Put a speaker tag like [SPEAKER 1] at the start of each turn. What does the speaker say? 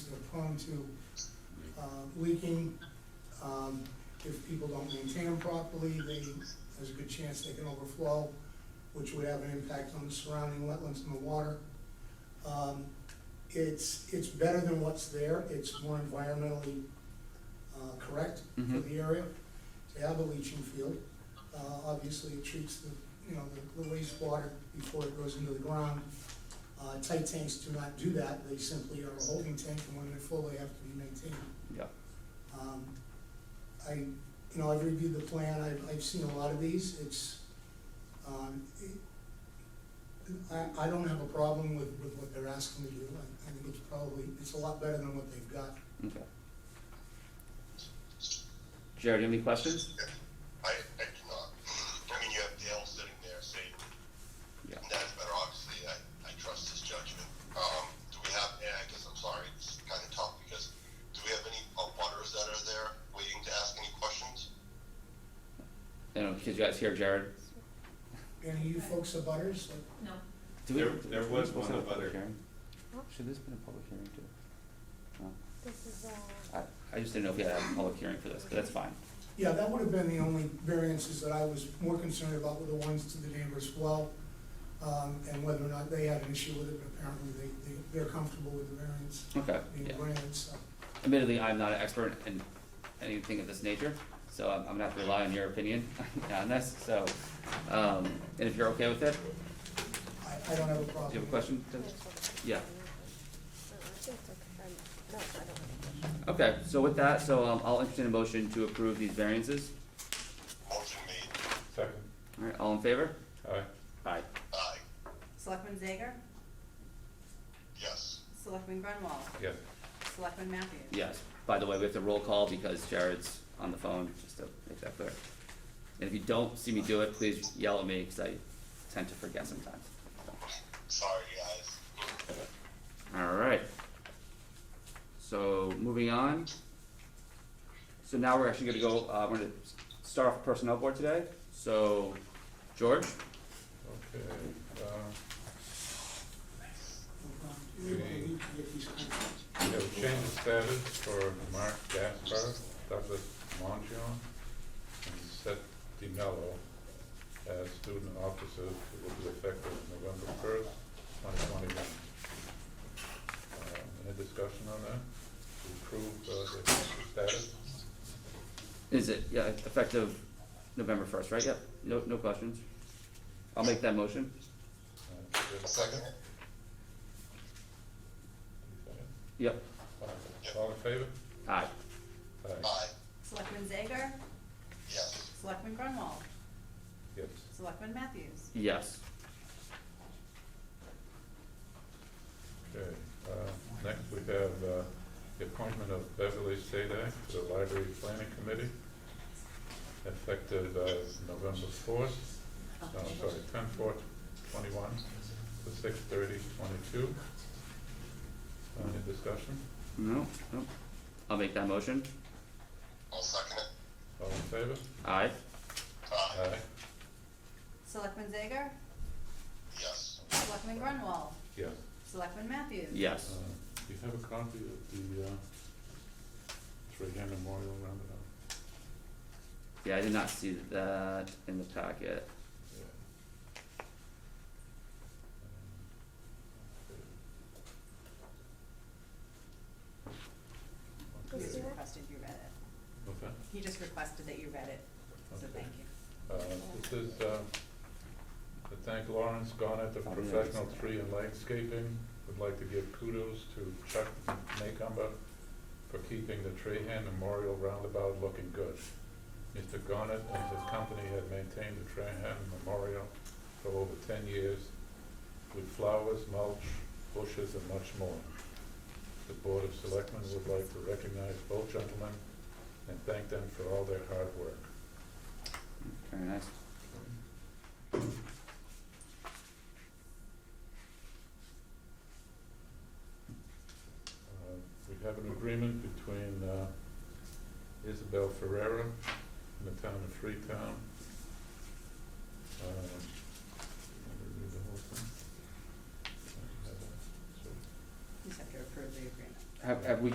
[SPEAKER 1] prone to uh, leaking. Um, If people don't maintain them properly, they, there's a good chance they can overflow, which would have an impact on the surrounding wetlands and the water. Um, It's, it's better than what's there, it's more environmentally uh, correct for
[SPEAKER 2] Mhm.
[SPEAKER 1] the area to have a leaching field. Uh, Obviously, it treats the, you know, the- the wastewater before it goes into the ground. Uh, Tight tanks do not do that, they simply are a holding tank, and when they're full, they have to be maintained.
[SPEAKER 2] Yeah.
[SPEAKER 1] Um, I, you know, I've reviewed the plan, I've, I've seen a lot of these, it's, um, it- I, I don't have a problem with, with what they're asking to do, I, I think it's probably, it's a lot better than what they've got.
[SPEAKER 2] Okay. Jared, you have any questions?
[SPEAKER 3] I, I do not. I mean, you have Dale sitting there saying,
[SPEAKER 2] Yeah.
[SPEAKER 3] that's better, obviously, I, I trust his judgment. Um, do we have, and I guess I'm sorry, it's kind of tough because, do we have any uh, butters that are there waiting to ask any questions?
[SPEAKER 2] You know, could you guys hear Jared?
[SPEAKER 1] Any of you folks are butters, like,
[SPEAKER 4] No,
[SPEAKER 2] Do we-
[SPEAKER 5] There- there was
[SPEAKER 2] Should this
[SPEAKER 5] one
[SPEAKER 2] have a public
[SPEAKER 5] other-
[SPEAKER 2] hearing? Should this have been a public hearing too? No.
[SPEAKER 6] This is, uh,
[SPEAKER 2] I, I just didn't know if we had a public hearing for this, but that's fine.
[SPEAKER 1] Yeah, that would have been the only variances that I was more concerned about were the ones to the neighbor's well, um, and whether or not they had an issue with it, but apparently they, they, they're comfortable with the variance
[SPEAKER 2] Okay,
[SPEAKER 1] being
[SPEAKER 2] yeah.
[SPEAKER 1] granted, so.
[SPEAKER 2] Admittedly, I'm not an expert in anything of this nature, so I'm, I'm gonna have to rely on your opinion on this, so, um, and if you're okay with it,
[SPEAKER 1] I, I don't have a
[SPEAKER 2] do
[SPEAKER 1] problem.
[SPEAKER 2] you have a question?
[SPEAKER 6] I just wanted to-
[SPEAKER 2] Yeah.
[SPEAKER 6] No, Uh, I think it's okay. Um, No, I don't have a question.
[SPEAKER 2] Okay, so with that, so, um, I'll entertain a motion to approve these variances.
[SPEAKER 3] Motion made,
[SPEAKER 5] Second.
[SPEAKER 2] Alright, all in favor?
[SPEAKER 5] Aye.
[SPEAKER 2] Aye.
[SPEAKER 3] aye,
[SPEAKER 4] Selectman Zager,
[SPEAKER 3] yes.
[SPEAKER 4] Selectman Grunwald,
[SPEAKER 5] Yes.
[SPEAKER 4] Selectman Matthews.
[SPEAKER 2] Yes, by the way, we have to roll call because Jared's on the phone, just to make that clear. And if you don't see me do it, please yell at me, cause I tend to forget sometimes.
[SPEAKER 3] Sorry, guys.
[SPEAKER 2] Alright. So, moving on. So now we're actually gonna go, uh, we're gonna s- start off personnel board today, so, George?
[SPEAKER 5] Okay, uh,
[SPEAKER 1] We need to get these contracts.
[SPEAKER 5] we have change of status for Mark Gaspar, Douglas Montion, and Seth DiMello as student officers who will be effective November first, twenty twenty-one. Uh, Any discussion on that? To approve uh, the change of status?
[SPEAKER 2] Is it, yeah, effective November first, right? Yep, no, no questions. I'll make that motion.
[SPEAKER 5] Uh, is there a
[SPEAKER 3] Second,
[SPEAKER 5] Second.
[SPEAKER 2] Yep,
[SPEAKER 5] Uh, All in favor?
[SPEAKER 2] aye.
[SPEAKER 5] Aye.
[SPEAKER 3] aye,
[SPEAKER 4] Selectman Zager,
[SPEAKER 3] yes.
[SPEAKER 4] Selectman Grunwald,
[SPEAKER 5] Yes.
[SPEAKER 4] Selectman Matthews.
[SPEAKER 2] Yes.
[SPEAKER 5] Okay, uh, next we have, uh, the appointment of Beverly Sadak to the Library Planning Committee, effective, uh, November fourth, no, sorry, ten fourth, twenty-one, to six thirty, twenty-two. Any discussion?
[SPEAKER 2] No, no. I'll make that motion.
[SPEAKER 3] I'll second it,
[SPEAKER 5] All in favor?
[SPEAKER 2] Aye.
[SPEAKER 3] aye,
[SPEAKER 5] Aye.
[SPEAKER 4] Selectman Zager,
[SPEAKER 3] yes.
[SPEAKER 4] Selectman Grunwald,
[SPEAKER 5] Yes.
[SPEAKER 4] Selectman Matthews.
[SPEAKER 5] Uh,
[SPEAKER 2] Yes.
[SPEAKER 5] do you have a copy of the, uh, Trahan Memorial Roundabout?
[SPEAKER 2] Yeah, I did not see that in the packet.
[SPEAKER 5] Yeah.
[SPEAKER 4] He just
[SPEAKER 5] Okay.
[SPEAKER 4] requested you read it.
[SPEAKER 5] Okay.
[SPEAKER 4] He just requested that you read it, so thank you.
[SPEAKER 5] Uh, This is uh, to thank Lawrence Garnett of
[SPEAKER 2] I don't know.
[SPEAKER 5] Professional Tree and Landscaping. Would like to give kudos to Chuck Maycomber for keeping the Trahan Memorial Roundabout looking good. Mr. Garnett and his company have maintained the Trahan Memorial for over ten years with flowers, mulch, bushes, and much more. The Board of Selectmen would like to recognize both gentlemen and thank them for all their hard work.
[SPEAKER 2] Very nice.
[SPEAKER 5] Uh, We have an agreement between uh, Isabel Ferreira and the town of Freetown. Um, let me read the whole thing. I have a- so-
[SPEAKER 4] You just have to approve the agreement.
[SPEAKER 2] Have, have we